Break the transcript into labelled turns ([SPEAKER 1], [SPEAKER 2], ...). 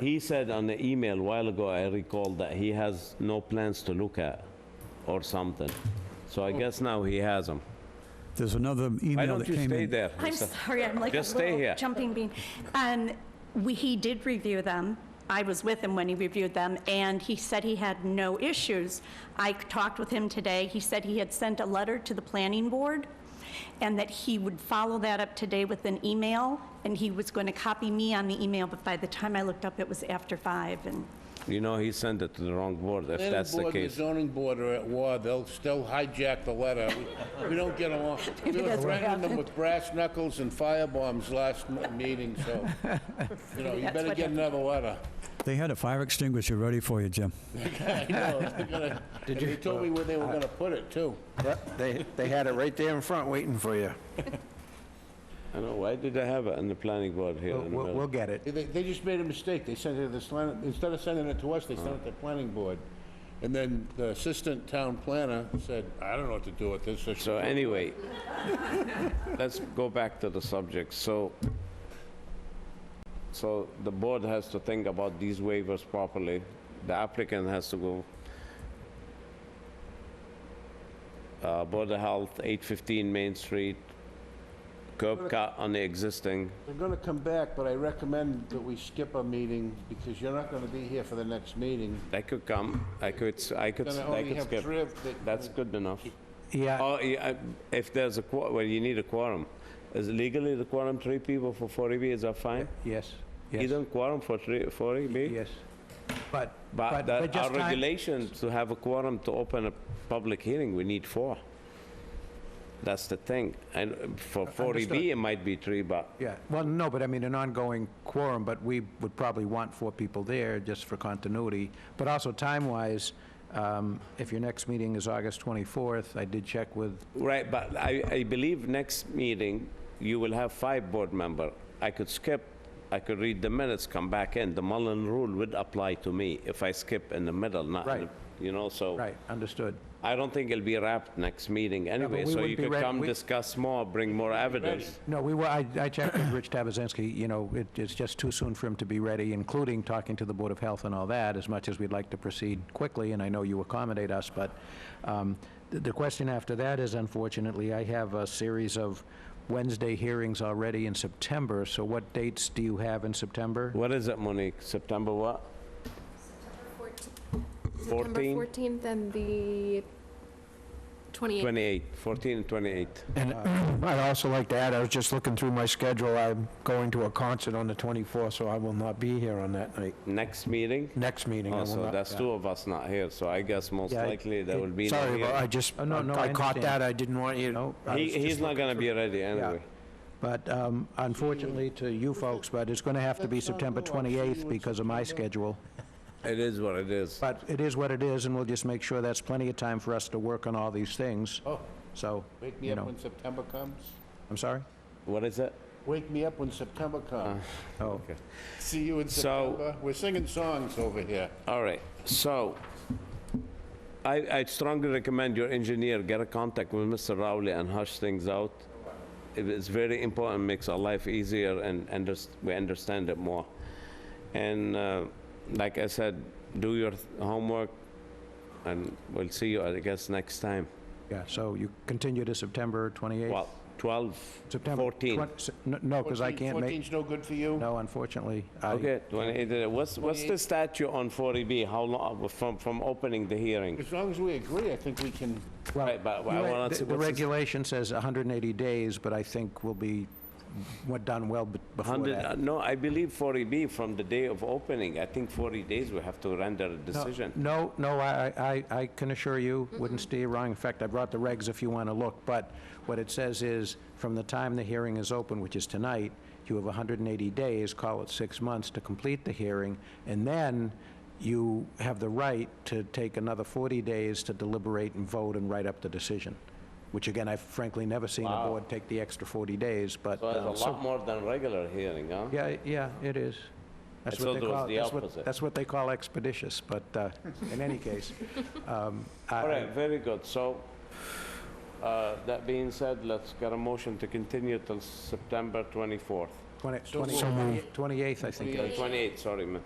[SPEAKER 1] He said on the email a while ago, I recall that he has no plans to look at or something. So I guess now he has them.
[SPEAKER 2] There's another
[SPEAKER 1] Why
[SPEAKER 2] email
[SPEAKER 1] don't
[SPEAKER 2] that
[SPEAKER 1] you
[SPEAKER 2] came
[SPEAKER 1] stay
[SPEAKER 2] in.
[SPEAKER 1] there?
[SPEAKER 3] I'm
[SPEAKER 1] Lisa?
[SPEAKER 3] sorry, I'm like a
[SPEAKER 1] Just stay here.
[SPEAKER 3] little jumping bean. And we, he did review them. I was with him when he reviewed them, and he said he had no issues. I talked with him today. He said he had sent a letter to the planning board, and that he would follow that up today with an email, and he was going to copy me on the email, but by the time I looked up, it was after five, and
[SPEAKER 1] You know, he sent it to the wrong board, if that's the
[SPEAKER 4] Planning board and
[SPEAKER 1] case.
[SPEAKER 4] zoning board are at war, they'll still hijack the letter. We- We don't get along.
[SPEAKER 3] Maybe
[SPEAKER 4] We were
[SPEAKER 3] that's what
[SPEAKER 4] threatening them
[SPEAKER 3] happened.
[SPEAKER 4] with brass knuckles and firebombs last m- meeting, so, you know, you
[SPEAKER 3] That's
[SPEAKER 4] better
[SPEAKER 3] what
[SPEAKER 4] get
[SPEAKER 3] happened.
[SPEAKER 4] another letter.
[SPEAKER 2] They had a fire extinguisher ready for you, Jim.
[SPEAKER 4] I know, they're gonna- And they told me where they were gonna put it, too.
[SPEAKER 5] Yep, They, they had it right there in front waiting for you.
[SPEAKER 1] I know, why did I have it on the planning board here
[SPEAKER 2] Oh,
[SPEAKER 5] We'll,
[SPEAKER 1] in the
[SPEAKER 5] we'll we'll
[SPEAKER 1] middle?
[SPEAKER 5] get it.
[SPEAKER 4] They- They, they just made a mistake, they sent it to this, line- instead of sending it to us, they sent it to the planning board. And then the assistant town planner said, I don't know what to do with this. so she-
[SPEAKER 1] So anyway, let's go back to the subject. So, so the board has to think about these waivers properly. The applicant has to go. Uh, Board of Health, 815 Main Street, curb cut on the existing.
[SPEAKER 4] They're gonna come back, but I recommend that we skip a meeting, because you're not gonna be here for the next meeting.
[SPEAKER 1] That could come, I could, s- I could, s-
[SPEAKER 4] Gonna
[SPEAKER 1] I
[SPEAKER 4] only
[SPEAKER 1] could
[SPEAKER 4] have three
[SPEAKER 1] skip.
[SPEAKER 4] of the-
[SPEAKER 1] That's good enough.
[SPEAKER 5] Yeah,
[SPEAKER 1] Oh, yeah, I- if there's a, quor- well, you need a quorum. Is legally the quorum three people for 40B, is that fine?
[SPEAKER 5] yes,
[SPEAKER 1] You
[SPEAKER 5] yes,
[SPEAKER 1] don't quorum for three, 40B?
[SPEAKER 5] yes. But,
[SPEAKER 1] But
[SPEAKER 5] but,
[SPEAKER 1] the-
[SPEAKER 5] but
[SPEAKER 1] our
[SPEAKER 5] just time,
[SPEAKER 1] regulation to have a quorum to open a public hearing, we need four. That's the thing. And uh, for 40B, it might be three, but
[SPEAKER 5] yeah, well, no, but I mean, an ongoing quorum, but we would probably want four people there just for continuity. But also time-wise, um, if your next meeting is August 24th, I did check with,
[SPEAKER 1] Right, but I, I believe next meeting, you will have five board member. I could skip, I could read the minutes, come back in. The Mullen rule would apply to me if I skip in the middle, not, in the-
[SPEAKER 5] Right.
[SPEAKER 1] you know, so.
[SPEAKER 5] right, understood.
[SPEAKER 1] I don't think it'll be wrapped next meeting anyway,
[SPEAKER 5] we
[SPEAKER 1] so
[SPEAKER 5] wouldn't
[SPEAKER 1] you
[SPEAKER 5] be
[SPEAKER 1] could
[SPEAKER 5] ready-
[SPEAKER 1] come
[SPEAKER 5] we-
[SPEAKER 1] discuss more, bring more evidence.
[SPEAKER 5] No, we were, I, I checked with Rich Tabazinski, you know, it, it's just too soon for him to be ready, including talking to the Board of Health and all that, as much as we'd like to proceed quickly, and I know you accommodate us, but, um, the, the question after that is unfortunately, I have a series of Wednesday hearings already in September, so what dates do you have in September?
[SPEAKER 1] What is it, Monique? September what?
[SPEAKER 6] September
[SPEAKER 1] 14?
[SPEAKER 6] 14th and the 28th.
[SPEAKER 1] 28, 14 and 28.
[SPEAKER 5] And I'd also like to add, I was just looking through my schedule, I'm going to a concert on the 24th, so I will not be here on that night,
[SPEAKER 1] Next meeting?
[SPEAKER 5] next meeting. I
[SPEAKER 1] Oh,
[SPEAKER 5] will
[SPEAKER 1] so
[SPEAKER 5] not-
[SPEAKER 1] that's
[SPEAKER 5] yeah.
[SPEAKER 1] two of us not here, so I guess most
[SPEAKER 5] Yeah, I-
[SPEAKER 1] likely there will be. no
[SPEAKER 7] Sorry, but
[SPEAKER 1] hearing.
[SPEAKER 7] I just,
[SPEAKER 5] Oh, no, no, I
[SPEAKER 7] I caught
[SPEAKER 5] understand.
[SPEAKER 7] that, I didn't want you,
[SPEAKER 5] No, I
[SPEAKER 1] He,
[SPEAKER 5] was just
[SPEAKER 1] he's not gonna be ready anyway.
[SPEAKER 5] But um, unfortunately to you folks, but it's going to have to be
[SPEAKER 4] That's not
[SPEAKER 5] September
[SPEAKER 4] new. I've seen you in
[SPEAKER 5] 28th because of my schedule.
[SPEAKER 1] It is what it is.
[SPEAKER 5] But it is what it is, and we'll just make sure that's plenty of time for us to work on all these things.
[SPEAKER 4] Oh,
[SPEAKER 5] So,
[SPEAKER 4] wake me
[SPEAKER 5] you
[SPEAKER 4] up
[SPEAKER 5] know,
[SPEAKER 4] when September comes.
[SPEAKER 5] I'm sorry?
[SPEAKER 1] What is it?
[SPEAKER 4] Wake me up when September comes.
[SPEAKER 5] Oh,
[SPEAKER 4] See you in
[SPEAKER 1] So-
[SPEAKER 4] September. We're singing songs over here.
[SPEAKER 1] All right, so I, I strongly recommend your engineer get a contact with Mr. Rowley and hush things out. It is very important, makes our life easier and unders- we understand it more. And uh, like I said, do your th- homework and we'll see you, I guess, next time.
[SPEAKER 5] yeah, so you continue to September 28th?
[SPEAKER 1] Well, 12,
[SPEAKER 5] September
[SPEAKER 1] 14.
[SPEAKER 5] 20 se- n- No, because I can't make,
[SPEAKER 4] 14's no good for you?
[SPEAKER 5] no, unfortunately. I-
[SPEAKER 1] Okay, 28, what's, what's the statute on 40B? How long, from, from opening the hearing?
[SPEAKER 4] As long as we agree, I think we can,
[SPEAKER 5] well,
[SPEAKER 1] Right, but I
[SPEAKER 5] you're right,
[SPEAKER 1] wanna
[SPEAKER 5] the-
[SPEAKER 1] see
[SPEAKER 5] The
[SPEAKER 1] what's this-
[SPEAKER 5] regulation says 180 days, but I think we'll be, we're done well be- before
[SPEAKER 1] 100, uh,
[SPEAKER 5] that.
[SPEAKER 1] no, I believe 40B from the day of opening, I think 40 days we have to render a
[SPEAKER 5] No,
[SPEAKER 1] decision.
[SPEAKER 5] No, no, I, I- I can assure you, wouldn't steer you wrong. In fact, I brought the regs if you want to look, but what it says is, from the time the hearing is open, which is tonight, you have 180 days, call it six months, to complete the hearing, and then you have the right to take another 40 days to deliberate and vote and write up the decision, which again, I've frankly never seen a board take the extra 40 days, but...
[SPEAKER 1] So
[SPEAKER 5] um,
[SPEAKER 1] it's a
[SPEAKER 5] so-
[SPEAKER 1] lot more than regular hearing, huh?
[SPEAKER 5] yeah, yeah, it is. That's
[SPEAKER 1] I
[SPEAKER 5] what
[SPEAKER 1] thought
[SPEAKER 5] they
[SPEAKER 1] it was
[SPEAKER 5] call-
[SPEAKER 1] the
[SPEAKER 5] that's what-
[SPEAKER 1] opposite.
[SPEAKER 5] That's what they call expeditious, but uh, in any case, um,
[SPEAKER 1] All
[SPEAKER 5] I-
[SPEAKER 1] right, very good. So, uh, that being said, let's get a motion to continue till September 24th.
[SPEAKER 5] twenty- 20 28th, I think. it is.
[SPEAKER 1] 28th, Uh, sorry, ma'am.